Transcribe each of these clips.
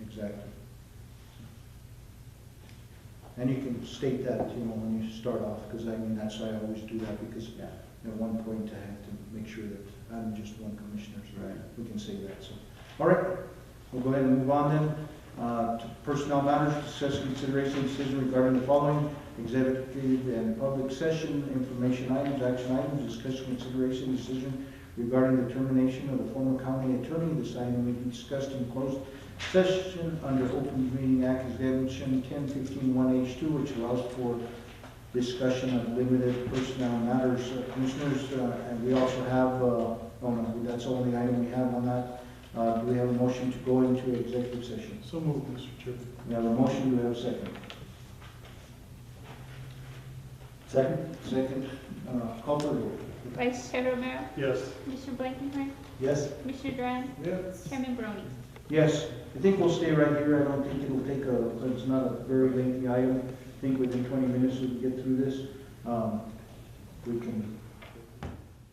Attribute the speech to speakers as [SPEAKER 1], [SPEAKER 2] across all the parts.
[SPEAKER 1] exactly. And you can state that, you know, when you start off, because I mean, that's why I always do that, because
[SPEAKER 2] Yeah.
[SPEAKER 1] at one point I have to make sure that I'm just one commissioner, so
[SPEAKER 2] Right.
[SPEAKER 1] we can say that, so. All right, we'll go ahead and move on then. Uh, to Personnel matters, discuss consideration decision regarding the following executive and public session, information items, action items, discussion consideration decision regarding the termination of the former county attorney. This item may be discussed in closed session under Open Meeting Act exemption ten fifteen one H two, which allows for discussion of limited personnel matters. Uh, Commissioners, uh, and we also have, uh, oh no, that's the only item we have on that. Uh, do we have a motion to go into executive session?
[SPEAKER 3] So moved, Mr. Chairman.
[SPEAKER 1] We have a motion, do we have a second? Second? Second, uh, call for the vote.
[SPEAKER 4] Vice Chair Romero,
[SPEAKER 3] Yes.
[SPEAKER 4] Commissioner Blankenhorn,
[SPEAKER 1] Yes?
[SPEAKER 4] Commissioner Duran,
[SPEAKER 3] Yes.
[SPEAKER 4] Chairman Brony.
[SPEAKER 1] Yes, I think we'll stay right here, I don't think it'll take a, it's not a very lengthy item. I think within twenty minutes we can get through this. Um, we can,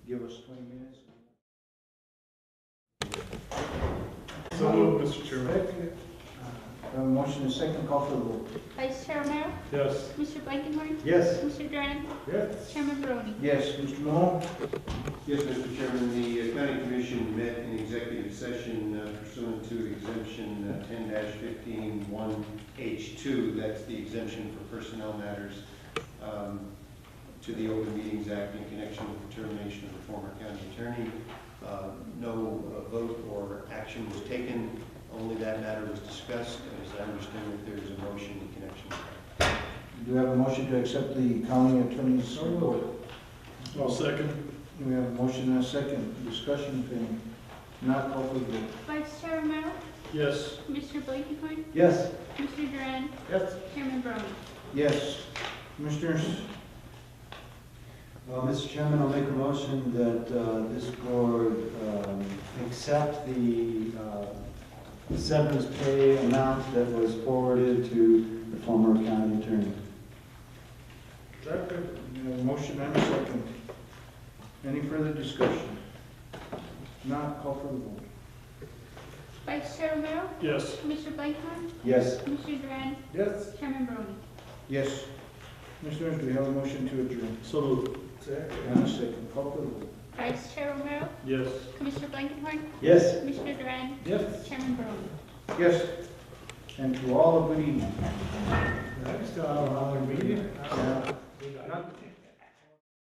[SPEAKER 1] give us twenty minutes.
[SPEAKER 3] So moved, Mr. Chairman.
[SPEAKER 1] Uh, Motion is second, call for the vote.
[SPEAKER 4] Vice Chair Romero,
[SPEAKER 3] Yes.
[SPEAKER 4] Commissioner Blankenhorn,
[SPEAKER 1] Yes.
[SPEAKER 4] Commissioner Duran,
[SPEAKER 3] Yes.
[SPEAKER 4] Chairman Brony.
[SPEAKER 1] Yes, Mr. Moore?
[SPEAKER 5] Yes, Mr. Chairman, the uh, county commission met in executive session uh, pursuant to exemption uh, ten 151 H two. That's the exemption for personnel matters um, to the Open Meetings Act in connection with the termination of the former county attorney. Uh, No uh, vote or action was taken, only that matter was discussed, and as I understand it, there is a motion in connection. with that.
[SPEAKER 1] Do we have a motion to accept the county attorney's report?
[SPEAKER 3] I'll second.
[SPEAKER 1] Do we have a motion and a second, discussion, if any? Not call for the vote.
[SPEAKER 4] Vice Chair Romero,
[SPEAKER 3] Yes.
[SPEAKER 4] Commissioner Blankenhorn,
[SPEAKER 1] Yes.
[SPEAKER 4] Commissioner Duran,
[SPEAKER 3] Yes.
[SPEAKER 4] Chairman Brony.
[SPEAKER 1] Yes. Commissioners? uh,
[SPEAKER 6] Well, Mr. Chairman, I'll make a motion that uh, this board um, accept the uh, severance pay amount that was forwarded to the former county attorney.
[SPEAKER 1] Second. motion and a second. Any further discussion? Not call for the vote.
[SPEAKER 4] Vice Chair Romero,
[SPEAKER 3] Yes.
[SPEAKER 4] Commissioner Blankenhorn,
[SPEAKER 6] Yes.
[SPEAKER 4] Commissioner Duran,
[SPEAKER 3] Yes.
[SPEAKER 4] Chairman Brony.
[SPEAKER 1] Yes. Commissioners, do we have a motion to adjourn?
[SPEAKER 3] So moved.
[SPEAKER 1] And a second, call for the vote.
[SPEAKER 4] Vice Chair Romero,
[SPEAKER 3] Yes.
[SPEAKER 4] Commissioner Blankenhorn,
[SPEAKER 6] Yes.
[SPEAKER 4] Commissioner Duran,
[SPEAKER 3] Yes.
[SPEAKER 4] Chairman Brony.
[SPEAKER 1] Yes. And to all a good evening.
[SPEAKER 3] Next, uh, another meeting.
[SPEAKER 1] Yeah.
[SPEAKER 3] Not-